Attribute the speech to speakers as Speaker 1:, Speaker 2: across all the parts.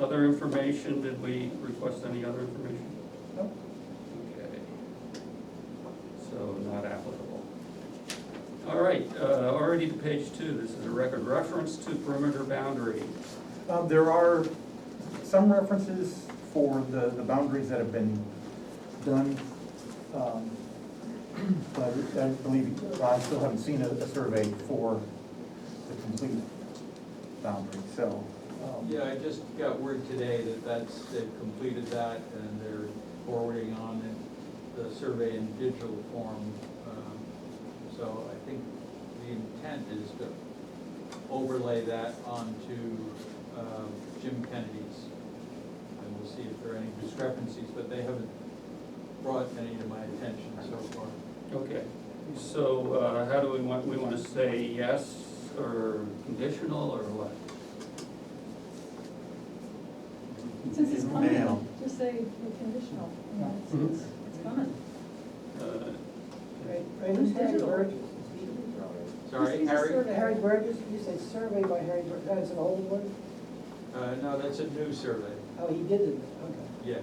Speaker 1: Other information, did we request any other information?
Speaker 2: No.
Speaker 1: Okay. So not applicable. All right, uh, already to page two, this is a record reference to perimeter boundary.
Speaker 2: Um, There are some references for the, the boundaries that have been done. um, But I believe, I still haven't seen a, a survey for the complete boundary, so. um,
Speaker 3: Yeah, I just got word today that that's, they've completed that and they're forwarding on it, the survey in digital form. Um, So I think the intent is to overlay that onto um, Jim Kennedy's. And we'll see if there are any discrepancies, but they haven't brought any to my attention so far.
Speaker 1: Okay, so uh, how do we want, we want to say yes or conditional or what?
Speaker 4: Since it's
Speaker 2: Now.
Speaker 4: coming, just say we're conditional, you know, it's-
Speaker 2: Mm-hmm.
Speaker 4: it's, it's coming.
Speaker 1: Uh,
Speaker 5: Right,
Speaker 6: Right,
Speaker 5: who's
Speaker 6: who's Harry
Speaker 5: digital?
Speaker 6: Burgess?
Speaker 3: Sorry,
Speaker 4: These are
Speaker 3: Harry?
Speaker 4: sort of-
Speaker 6: Harry Burgess, you said survey by Harry Burgess, that's an old one?
Speaker 3: Uh, no, that's a new survey.
Speaker 6: Oh, he did it, okay.
Speaker 3: Yes,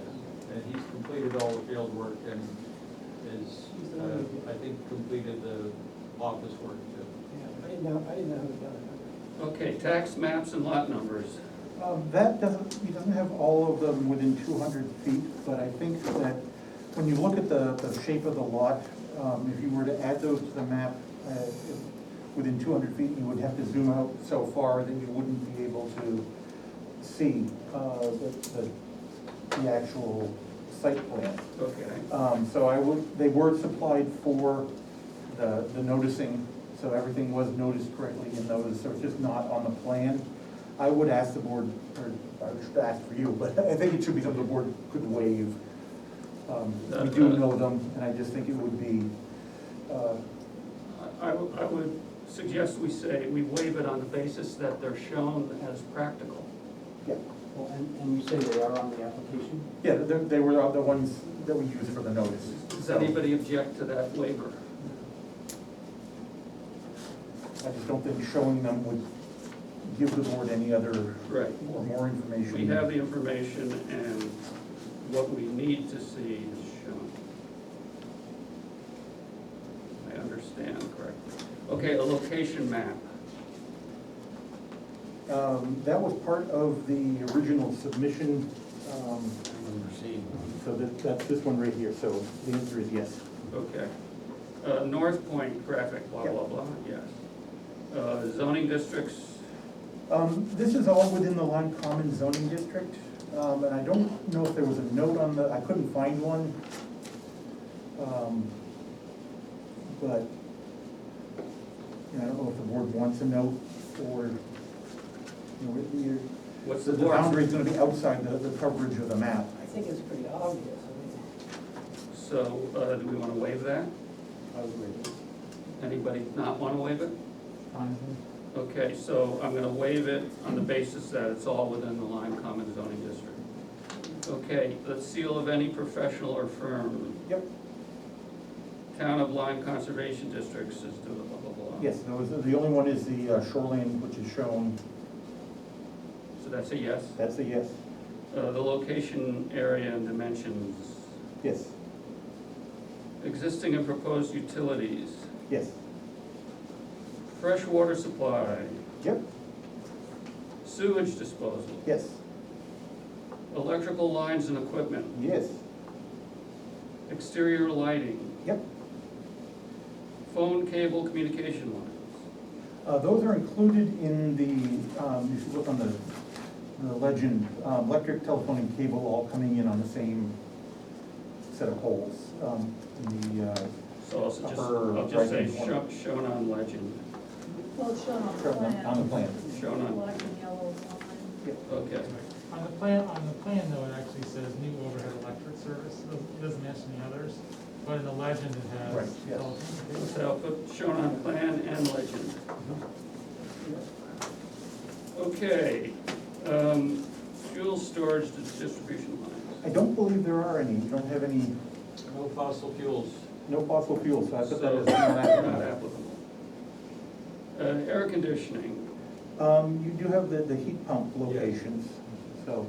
Speaker 3: and he's completed all the field work and is, uh, I think, completed the office work too.
Speaker 6: Yeah, I didn't know, I didn't know who done
Speaker 1: Okay, tax maps and lot numbers.
Speaker 2: Um, That doesn't, he doesn't have all of them within two hundred feet, but I think that when you look at the, the shape of the lot, um, if you were to add those to the map, uh, if- within two hundred feet, you would have to zoom out so far that you wouldn't be able to see, uh, the, the, the actual site plan.
Speaker 1: Okay.
Speaker 2: Um, so I would, they were supplied for the, the noticing, so everything was noticed correctly in those, so it's just not on the plan. I would ask the board, or I should ask for you, but I think it should be something the board could waive. Um, We do know them, and I just think it would be, uh,
Speaker 1: I, I would- I would suggest we say we waive it on the basis that they're shown as practical.
Speaker 2: yeah,
Speaker 7: Well, and, and you say they are on the application?
Speaker 2: yeah, they, they were the ones that we used for the notice.
Speaker 1: Does
Speaker 2: So
Speaker 1: anybody object to that waiver?
Speaker 2: I just don't think showing them would give the board any other,
Speaker 1: Right.
Speaker 2: or more information.
Speaker 1: We have the information and what we need to see is shown. I understand correctly. Okay, a location map.
Speaker 2: Um, That was part of the original submission, um, so that, that's this one right here, so the answer is yes.
Speaker 1: Okay. Uh, North Point graphic, blah, blah, blah, yes. Uh, zoning districts,
Speaker 2: Um, This is all within the Lime Common zoning district, um, and I don't know if there was a note on the, I couldn't find one. Um, But, you know, I don't know if the board wants a note or, you know, it- you're-
Speaker 1: what's
Speaker 2: the
Speaker 1: the?
Speaker 2: the boundary's gonna be outside the, the coverage of the map.
Speaker 6: it. I think it's pretty obvious, I mean.
Speaker 1: So, uh, do we wanna waive that?
Speaker 7: I would waive it.
Speaker 1: Anybody not wanna waive it?
Speaker 7: Fine.
Speaker 1: Okay, so I'm gonna waive it on the basis that it's all within the Lime Common zoning district. Okay, the seal of any professional or firm,
Speaker 2: Yep.
Speaker 1: town of Lime Conservation District says do it, blah, blah, blah.
Speaker 2: Yes, there was, the only one is the uh, shoreline, which is shown,
Speaker 1: So that's a yes.
Speaker 2: that's a yes,
Speaker 1: Uh, the location, area, and dimensions,
Speaker 2: yes,
Speaker 1: existing and proposed utilities,
Speaker 2: yes,
Speaker 1: fresh water supply,
Speaker 2: yep,
Speaker 1: sewage disposal,
Speaker 2: yes,
Speaker 1: electrical lines and equipment,
Speaker 2: yes,
Speaker 1: exterior lighting,
Speaker 2: yep.
Speaker 1: phone, cable, communication lines.
Speaker 2: Uh, those are included in the, um, you should look on the, the legend, um, electric, telephone, and cable all coming in on the same set of poles, um, in the, uh,
Speaker 1: So I'll just,
Speaker 2: Upper
Speaker 1: I'll just say
Speaker 2: right-hand corner.
Speaker 1: sho- shown on legend,
Speaker 4: Well, it's shown on the
Speaker 2: Shown on-
Speaker 4: plan.
Speaker 2: on the plan.
Speaker 1: Shown on-
Speaker 4: Black and yellow line.
Speaker 1: okay.
Speaker 8: On the plan, on the plan though, it actually says new overhead electric service, It doesn't- it doesn't mention the others, but in the legend it
Speaker 2: Right,
Speaker 8: has.
Speaker 2: yes.
Speaker 8: telecommunications.
Speaker 1: So I'll put shown on plan and legend. Okay, um, fuel storage dis- distribution
Speaker 2: I
Speaker 1: lines.
Speaker 2: don't believe there are any, you don't have any,
Speaker 3: No fossil fuels.
Speaker 2: no fossil fuels, so I put that
Speaker 1: So,
Speaker 2: as not
Speaker 1: not
Speaker 2: applicable.
Speaker 1: applicable. Uh, air conditioning,
Speaker 2: Um, you do have the, the heat pump locations, so.